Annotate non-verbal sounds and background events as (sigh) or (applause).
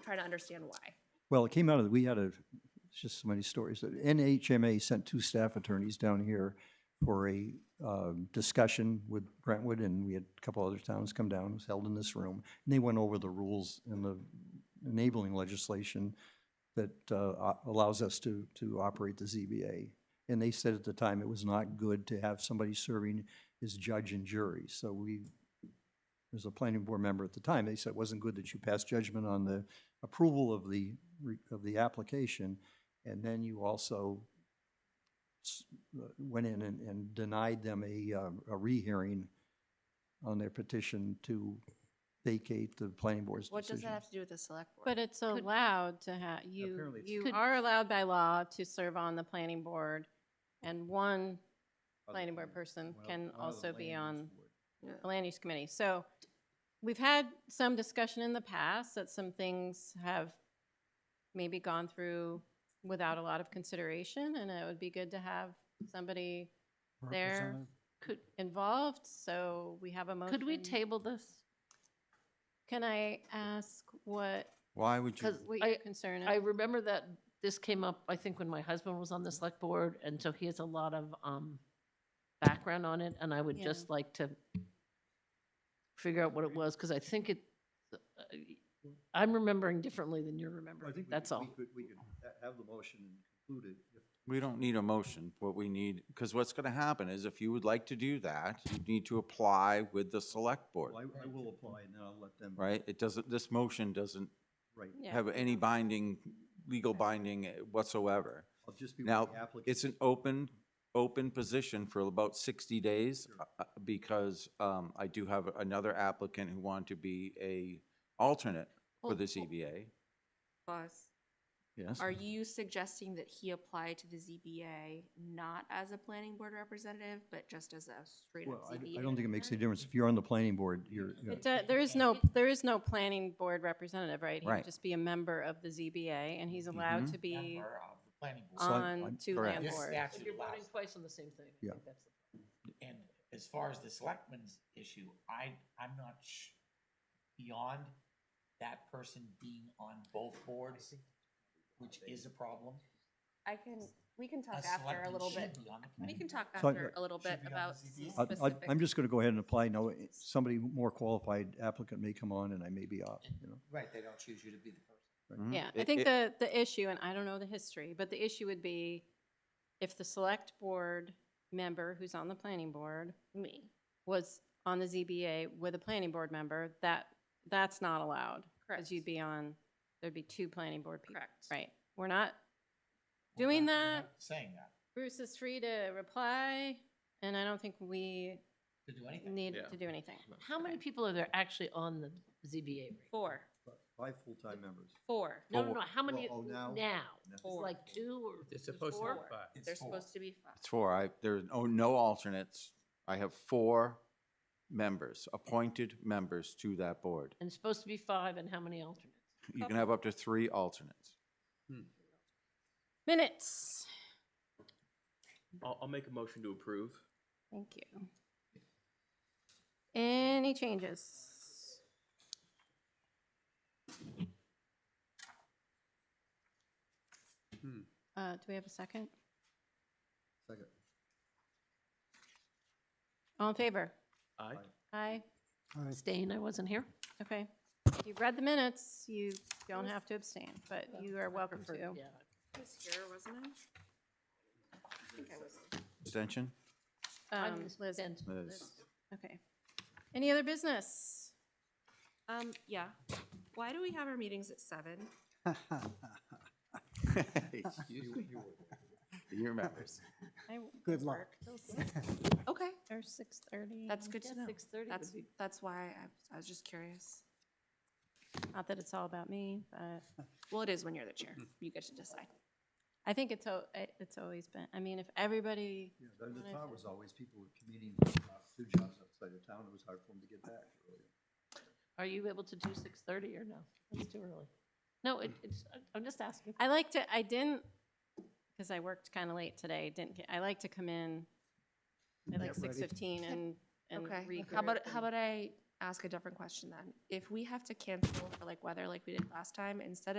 trying to understand why. Well, it came out of, we had a, it's just so many stories. that NHMA sent two staff attorneys down here for a um, discussion with Brentwood, and we had a couple other towns come down, it was held in this room. And they went over the rules and the enabling legislation that uh, o- allows us to, to operate the ZBA. And they said at the time it was not good to have somebody serving as judge and jury. So we, as a planning board member at the time, they said it wasn't good that you passed judgment on the approval of the, re- of the application, and then you also s- uh, went in and- and denied them a, uh, a rehearing on their petition to vacate the planning board's decision. What does that have to do with the select board? But it's allowed to have, you, Apparently it's- you Could- are allowed by law to serve on the planning board, and one planning board person can also be on Yeah. the land use committee. So we've had some discussion in the past that some things have maybe gone through without a lot of consideration, and it would be good to have somebody there Could, involved, so we have a motion. could we table this? Can I ask what, Why would you, Because what your I, concern I is? remember that this came up, I think, when my husband was Mm-hmm. on the select board, and so he has a lot of, um, background on it, and I would Yeah. just like to figure out what it was, because I think it, uh, I'm remembering differently than you're remembering, that's all. We could have the motion included. we don't need a motion, what we need, because what's gonna happen is if you would like to do that, you need to apply with the select board, I will apply, and then I'll let them, right? It doesn't, this motion doesn't right, Yeah. have any binding, legal binding whatsoever. I'll just be with Now, the It's an open, open position for about sixty days, uh, uh, because, um, I do have another applicant who wanted to be a alternate for Well, E the well- ZBA, Boss, yes? are you suggesting that he apply to the ZBA not as a planning board representative, but just as a straight Well, up I ZBA? I don't think it makes any difference. If you're on the planning board, you're, you're- It do- There is no, there is no planning board representative, right? He'd Right. just be a member of the ZBA, and he's allowed Mhm. to be member of the uh, planning So board. I- on I'm- two correct. land This boards. statute You're voting allows- twice on the same thing. I Yeah. think that's the- And as far as the selectmen's issue, I, I'm not sh- beyond that person being on both boards, which is a problem. I can, we can A talk after a selectman little should bit. be on the We planning can board. talk So I- after a little Should bit be on the about ZBA. I- I- specific. I'm just going to go ahead and apply. Now, somebody more qualified applicant may come on, and I may be off, you know. Right, they don't choose you to be the person. Mhm. Yeah, I It- think it- the, the issue, and I don't know the history, but the issue would be if the select board member who's on the planning board Me, was on the ZBA with a planning board member, that, that's not allowed. correct, Because you'd be on, there'd be two planning board people. correct. Right, we're not, We're Doing not- we're that- not Saying that, Bruce is free to reply, and I don't think we to do anything. need Yeah. to do anything. How many Okay. people are there actually on the ZBA? right now? Four, Five full-time members. four, No, no, Four. no, how many Well, oh, now- now? It's Four. like two or? They're is it supposed to four? have five. It's there's four. supposed to be five. It's four. I, there's no, no alternates. I have four members, appointed members to that board. And it's supposed to be five, and how many alternates? You can have up to three alternates. Minutes, I'll, I'll make a motion to approve. thank you. Any changes? Hmm. Uh, do we have a second? Second. All in favor? Aye. Aye, Abstain, I wasn't here. okay. If You've read the minutes, you don't have to abstain, but you are welcome Prefer- to. Yeah. I was here, wasn't I? I think I was. Abstention? I'm Um, Liz, abstain. Liz. okay. Any other business? Um, yeah. Why do we have our meetings at seven? (laughs) Excuse me. You remember. I w- Good luck. work till six Okay, Or six thirty. that's good to know. Six thirty That's, would be. that's why I, I was just curious. Not that it's all about me, but Well, it is when you're the Hmm. chair. You get to decide. I think it's, al- it- it's always been, I mean, if everybody, Yeah, the What I the town said. was always, people were commuting, uh, two jobs outside of town, it was hard for them to get back. earlier. Are you able to do six thirty or no? It's too early. No, it, it's, I'm just asking. I like to, I didn't, because I worked kind of late today, didn't, get- I like to come in at like Get ready. six fifteen and, and Okay. regroup. How about, how and- about I ask a different question then. If we have to cancel for like weather like we did last time, instead of